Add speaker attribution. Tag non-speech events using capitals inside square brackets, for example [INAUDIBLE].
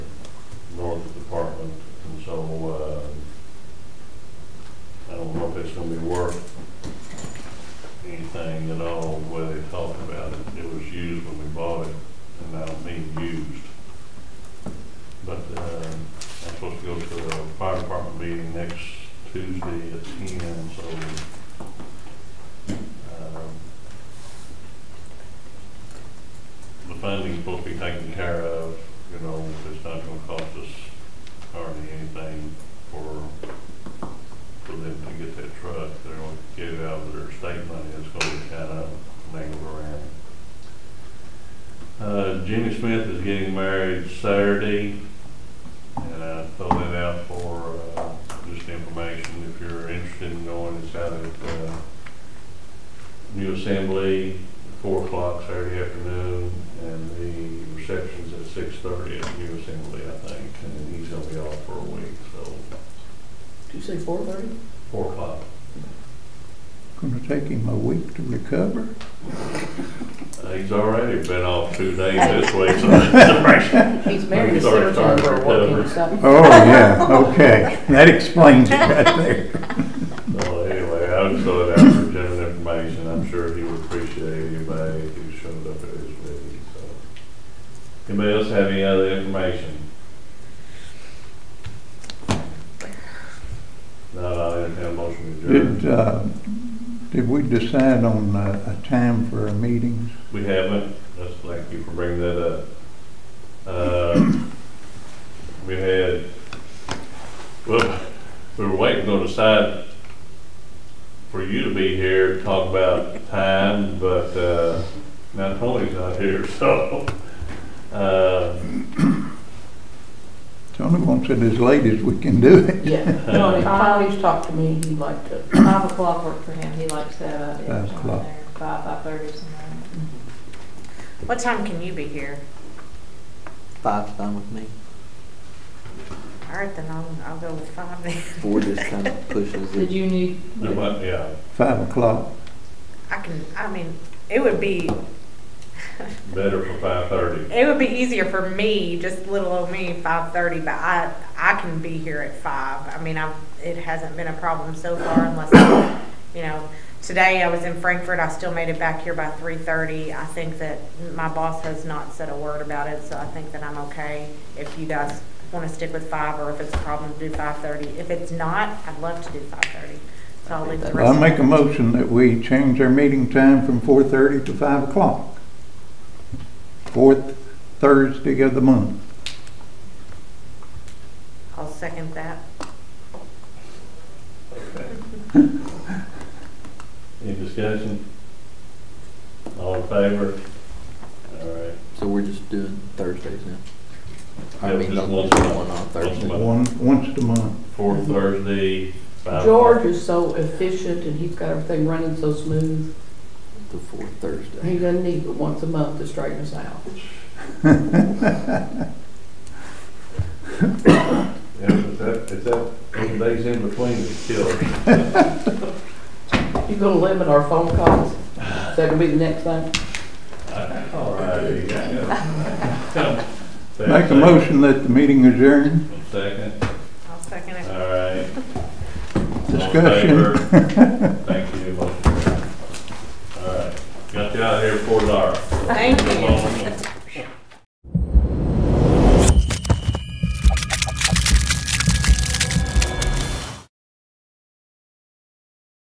Speaker 1: North Department, and so, uh, I don't know if it's gonna be worth anything at all, the way they talked about it. It was used when we bought it, and now it's being used. But, uh, I'm supposed to go to the fire department meeting next Tuesday at ten, so, um, the funding's supposed to be taken care of, you know, it's not gonna cost us hardly anything for, for them to get that truck. They're gonna get it out of their state money, it's gonna be kind of mangled around. Uh, Jimmy Smith is getting married Saturday, and I throw that out for, uh, just information, if you're interested in going, it's out at, uh, New Assembly, four o'clock Saturday afternoon, and the reception's at six thirty at New Assembly, I think, and he's gonna be off for a week, so
Speaker 2: Did you say four thirty?
Speaker 1: four o'clock.
Speaker 3: Gonna take him a week to recover?
Speaker 1: Uh, He's already been off two days this week, so [LAUGHS] that's right.
Speaker 2: He's married to
Speaker 1: Sorry,
Speaker 2: Sarah
Speaker 1: sorry,
Speaker 2: Turnbull, what can you say?
Speaker 3: Oh, yeah, okay. That explains it right there.
Speaker 1: So anyway, I would throw it out for general information, I'm sure he would appreciate anybody who showed up at his wedding, so. Anybody else have any other information? Not, I'll entertain a motion to adjourn.
Speaker 3: Did, uh, did we decide on uh, a time for our meetings?
Speaker 1: We haven't, that's, thank you for bringing that up. Uh, We had, well, we were waiting on the side for you to be here to talk about time, but, uh, now Tony's not here, [LAUGHS] so, uh,
Speaker 3: Tony wants it as late as we can do it.
Speaker 2: Yeah, Tony, Tony's talked to me, he'd like to,
Speaker 4: Five o'clock worked for him, he likes that idea.
Speaker 3: Five o'clock.
Speaker 4: Five, five thirty, something like that.
Speaker 5: What time can you be here?
Speaker 6: Five's fine with me.
Speaker 5: All right, then I'll, I'll go with five then.
Speaker 6: Four just kind of pushes
Speaker 4: Did
Speaker 6: it.
Speaker 4: you need,
Speaker 1: there might- yeah,
Speaker 3: Five o'clock.
Speaker 5: [LAUGHS] I can, I mean, it would be, [LAUGHS]
Speaker 1: better for five thirty.
Speaker 5: it would be easier for me, just little old me, five thirty, but I, I can be here at five. I mean, I, it hasn't been a problem so far unless, you know, today I was in Frankfurt, I still made it back here by three thirty. I think that my boss has not said a word about it, so I think that I'm okay if you guys wanna stick with five, or if it's a problem, do five thirty. If it's not, I'd love to do five thirty, so I'll leave the rest.
Speaker 3: I'll make a motion that we change our meeting time from four thirty to five o'clock. Fourth Thursday of the month.
Speaker 5: I'll second that.
Speaker 1: Okay. Any discussion? All in favor? All right.
Speaker 6: So we're just doing Thursdays now. I
Speaker 1: Yeah,
Speaker 6: mean,
Speaker 1: just
Speaker 6: not
Speaker 1: once
Speaker 6: one
Speaker 1: a month.
Speaker 6: on
Speaker 1: Once a
Speaker 6: Thursday.
Speaker 1: month.
Speaker 3: One, once a month.
Speaker 1: Fourth Thursday, five
Speaker 2: George
Speaker 1: o'clock.
Speaker 2: is so efficient and he's got everything running so smooth,
Speaker 6: The fourth
Speaker 2: he
Speaker 6: Thursday.
Speaker 2: doesn't need but once a month to straighten us out.
Speaker 1: Yeah, is that, is that, those days in between is killer.
Speaker 2: You gonna limit our phone calls? Is that gonna be the next thing?
Speaker 1: All righty.
Speaker 3: Make a motion that the meeting adjourn.
Speaker 1: Second,
Speaker 5: I'll second it.
Speaker 1: all right. [LAUGHS]
Speaker 3: Discussion.
Speaker 1: All in favor? Thank you. All right, got you out of here for an hour.
Speaker 5: Thank you.
Speaker 1: Come on.